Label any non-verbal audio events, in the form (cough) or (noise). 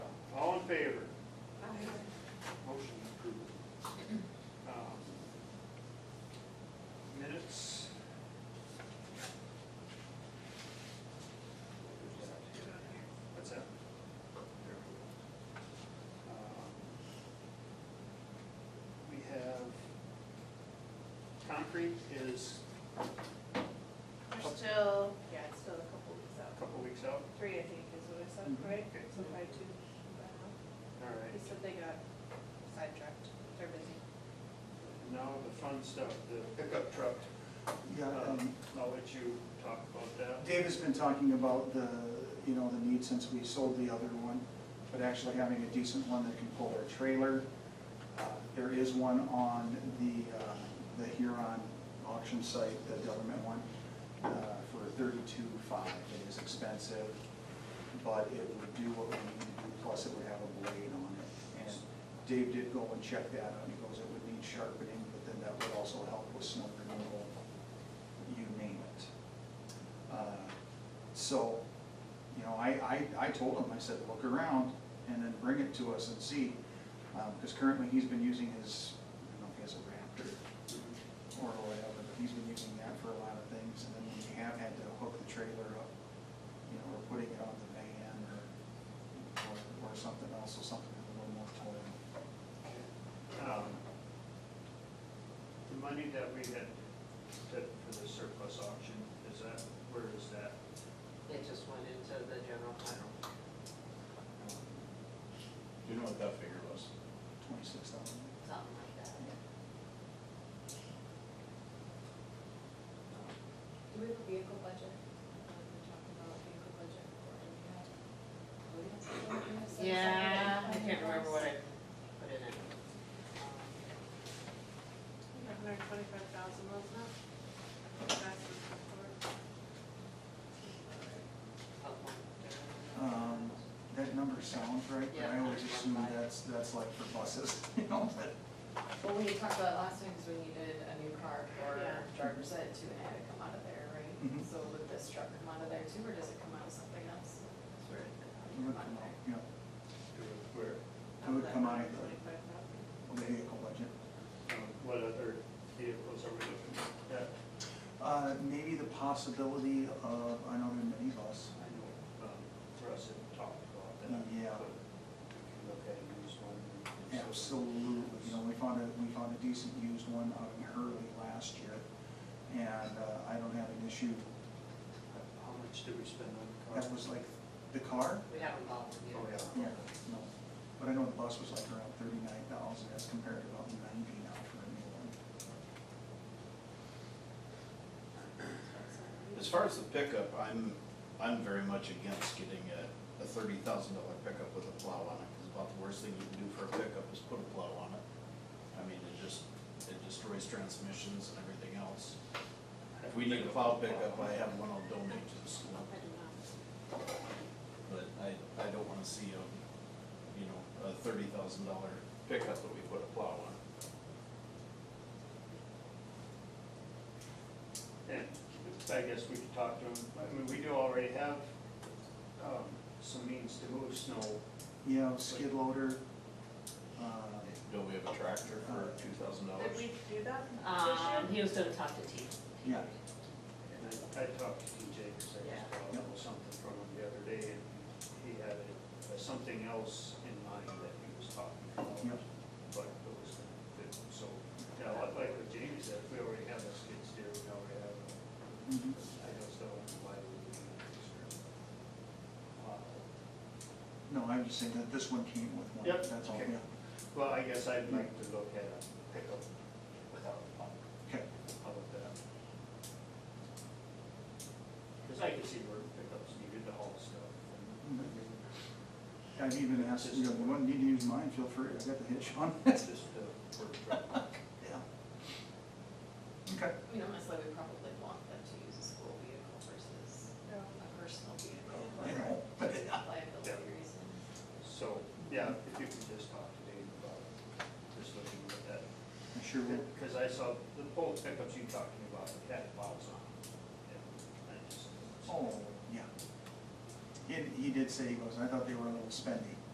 favor? Motion approved. Um, Minutes? What's that? Um, There we go. Um, We have, concrete is We're still, yeah, it's still a couple weeks a out. couple weeks out. Three, I think, is what I said, Mm-hmm. right? Okay. So probably two. by now. All right. He said they got sidetracked, they're busy. And Now the fun stuff, the pickup truck. Yeah, Um, um, I'll let you talk about that. Dave has been talking about the, you know, the need since we sold the other one, but actually having a decent one that can pull our trailer. Uh, There is one on the, uh, the Huron auction site, the government one, uh, for thirty-two five. It is expensive, but it would do what we need to do, plus it would have a blade on it. And Dave did go and check that out, he goes, it would need sharpening, but then that would also help with snow removal, you name it. Uh, So, you know, I, I, I told him, I said, look around and then bring it to us and see. Because currently he's been using his, I don't know if he has a Raptor or whatever, but he's been using that for a lot of things. And then when you have had to hook the trailer up, you know, or putting it on the van or, or or something else, so something with a little more toil. Um, The money that we had set for the surplus auction, is that, where is that? It just went into the general fund. Do you know what that figure was? Twenty-six thousand. Something like that. Do we have a vehicle budget? Uh, We talked about vehicle budget, or do we have? do we have something that we have set aside? Yeah, I can't remember what I put in it. We have hundred twenty-five thousand miles now. That's the report. Um, up one. Um, That number sounds right, but I always Yeah. assume that's, that's like for buses, (laughs) you know, but Well, we had talked about last time, because we needed a new car for Yeah. driver's ed too, and it had to come out of there, right? Mhm. So would this truck come out of there too, or does it come out of something else? Sure. It would Come out come of out, there. you know, Where? it would come out of Twenty-five thousand. the vehicle budget. Um, What other vehicles are we looking at? Uh, maybe the possibility of another minibus. I know um, Russ had talked about that. Yeah. but We can look at a used one. and- Absolutely, you know, we found a, we found a decent used one out in Hurley last year, and uh, I don't have an issue. How much did we spend on the car? That was like the car? We haven't bought them Oh, yet. yeah. No, but I know the bus was like around thirty-nine thousand, as compared to about ninety now for a new one. As far as the pickup, I'm, I'm very much against getting a, a thirty thousand dollar pickup with a plow on it, because about the worst thing you can do for a pickup is put a plow on it. I mean, it just, it destroys transmissions and everything else. If we need a plow pickup, I have one I'll donate to the school, I do not. but I, I don't wanna see a, you know, a thirty thousand dollar pickup that we put a plow on. And I guess we could talk to him, I mean, we do already have um, some means to move snow Yeah, skid loader, uh, Don't we have a tractor for two thousand Oh, Did dollars? we do that this year? Um, he was gonna talk to T. yeah, And I, I talked to TJ, because I just got a little something from him the other day, and he had uh, something else in mind that he was talking about. Yep. But it was, it- so, yeah, like like what Jamie said, if we already have a skid steer, we already have, a- mhm. I just don't know why we would need a skid steer. Uh, No, I'm just saying that this one came with one, Yep, that's all, okay. yeah. Well, I guess I'd like to look at a pickup without a pump. Okay, How about that? Because I can see where pickups needed to haul stuff. and- Mm-hmm. I've even asked, you know, if you want, need to use mine, feel free, I've got the hitch on. That's just the work truck. (laughs) Yeah. Okay. I mean, honestly, we probably want them to use a school vehicle versus No. a personal vehicle for I know, but- liability reasons. So, yeah, if you could just talk to Dave about just looking at that. I sure will. Because I saw the whole pickups you talking about, it had valves on. it. And I just- Oh, yeah. He, he did say he was, I thought they were a little spendy.